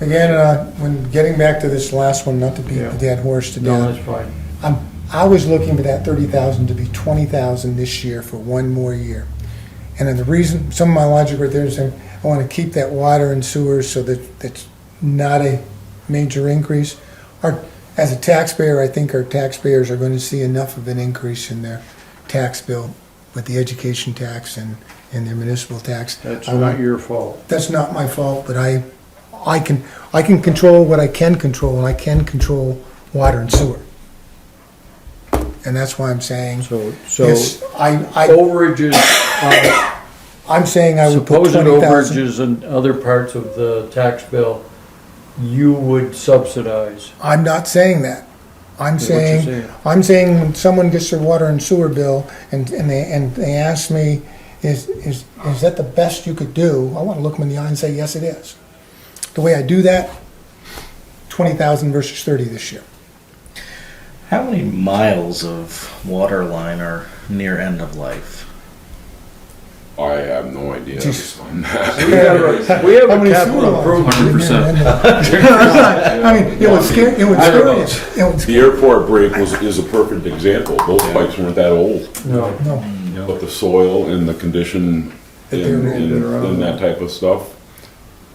Again, uh, when getting back to this last one, not to beat the dead horse to No, death, that's fine. I'm, I was looking for that thirty thousand to be twenty thousand this year for one more year. And then the reason, some of my logic right there is saying, I wanna keep that water and sewers so that that's not a major increase. Our, as a taxpayer, I think our taxpayers are gonna see enough of an increase in their tax bill with the education tax and, and their municipal tax. That's I want- not your fault. that's not my fault, but I, I can, I can control what I can control, and I can control water and sewer. And that's why I'm saying, So, so yes, I, overages, uh, I, I'm saying I would put supposed twenty thousand. overages in other parts of the tax bill, you would subsidize. I'm not saying that. I'm Is what you're saying, saying. I'm saying when someone gets their water and sewer bill, and, and they, and they ask me, is, is, is that the best you could do? I wanna look them in the eye and say, yes, it is. The way I do that, twenty thousand versus thirty this year. How many miles of water line are near end of life? I have no idea. Jeez. We have a, we have How a many sewer capital lines? improvement. 100%. I mean, it would scare, it would I scare don't you. know. It would The airport break was, is a perfect example. Those pipes weren't that old, No, No, but the soil and the condition That they and, were in. and, and that type of stuff,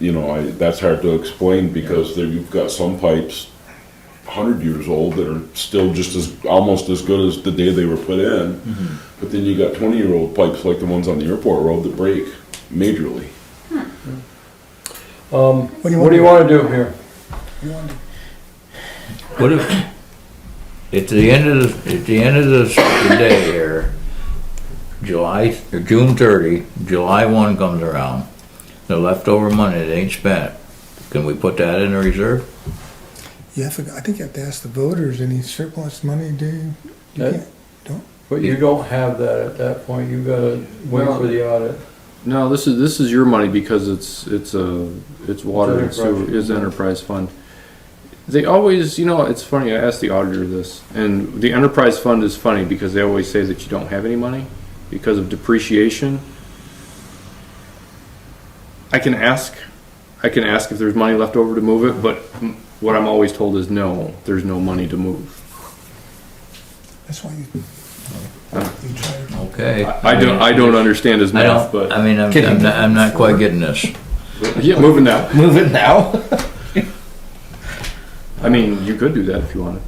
you know, I, that's hard to explain because there, you've got some pipes hundred years old that are still just as, almost as good as the day they were put in. Mm-hmm. But then you got twenty-year-old pipes like the ones on the airport road that break majorly. um, What do you what do you wanna do here? What if, at the end of, the- at the end of this- the day here, July, or June thirty, July one comes around, the leftover money that ain't spent, can we put that in a reserve? you have to, I think you have to ask the voters, any surplus money, do you? you? Uh, can't- But you don't have that at that point, you gotta wait Well- for the audit. No, this is, this is your money because it's, it's a, it's water and sewer, enterprise. is enterprise fund. They always, you know, it's funny, I asked the auditor this, and the enterprise fund is funny because they always say that you don't have any money because of depreciation. I can ask, I can ask if there's money left over to move it, but what I'm always told is no, there's no money to move. That's why you, you try to. Okay. I I don't, I don't understand his I math, don't, I but, mean, I'm, I'm not, I'm not quite getting this. yeah, moving now. Move it now? I mean, you could do that if you wanted.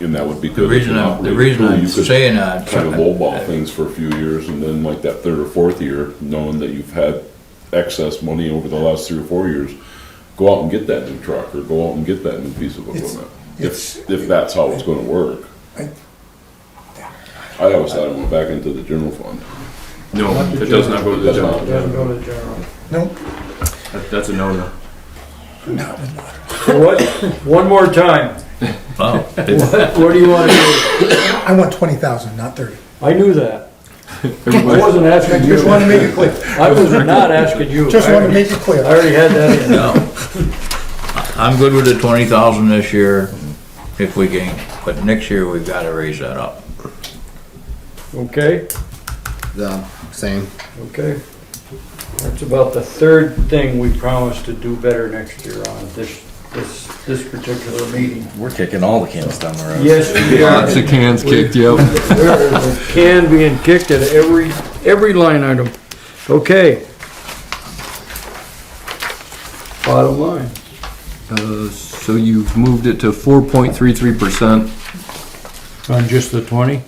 And that would be The good. if reason you I'm, the operated reason through. I'm You could- saying that. kind of lowball things for a few years, and then like that third or fourth year, knowing that you've had excess money over the last three or four years, go out and get that new truck or go out and get that new piece of It's- equipment. it's- If, if that's how it's gonna work. I- I always thought it went back into the general fund. No, it does not go to the That's general. not- It doesn't go to general. No, That- That's a no-no. So What, one more time, Oh, what what do you wanna do? I want twenty thousand, not thirty. I knew that, I Everybody- wasn't I asking you. just wanna make it clear, I was not asking you. just wanna make it I clear. already had that in. no. I'm good with the twenty thousand this year, if we can, but next year we've gotta raise that up. Okay, The same. okay. That's about the third thing we promised to do better next year on this, this, this particular meeting. We're kicking all the cans down the road. Yes, we are. Lots of cans kicked, yep. There is a Can being kicked at every, every line item. Okay. Bottom line. Uh, So you've moved it to four point three three percent, On just the twenty?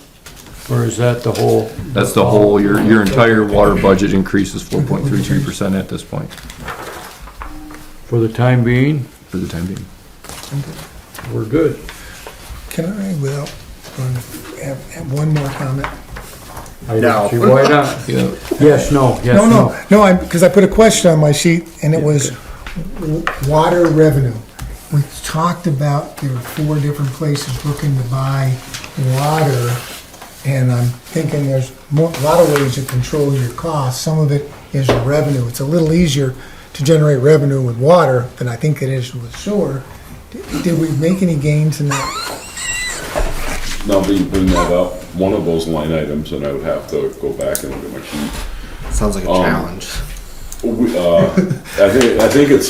Or is that the whole? that's the whole, your, your entire water budget increase is four point three three percent at this point, For the time being, for the time being. we're good. Can I, without, um, have, have one more comment? I No. don't see why not. Yeah, Yes, no, yes, No, no. no, no, I, because I put a question on my sheet, and it was w- water revenue. We talked about there were four different places looking to buy water, and I'm thinking there's more, a lot of ways to control your costs. Some of it is revenue. It's a little easier to generate revenue with water than I think it is with sewer. Did- Did we make any gains in that? Now that you bring that up, one of those line items, and I would have to go back and look at my sheet. Sounds like a Um, challenge. We- uh, I think, I think it's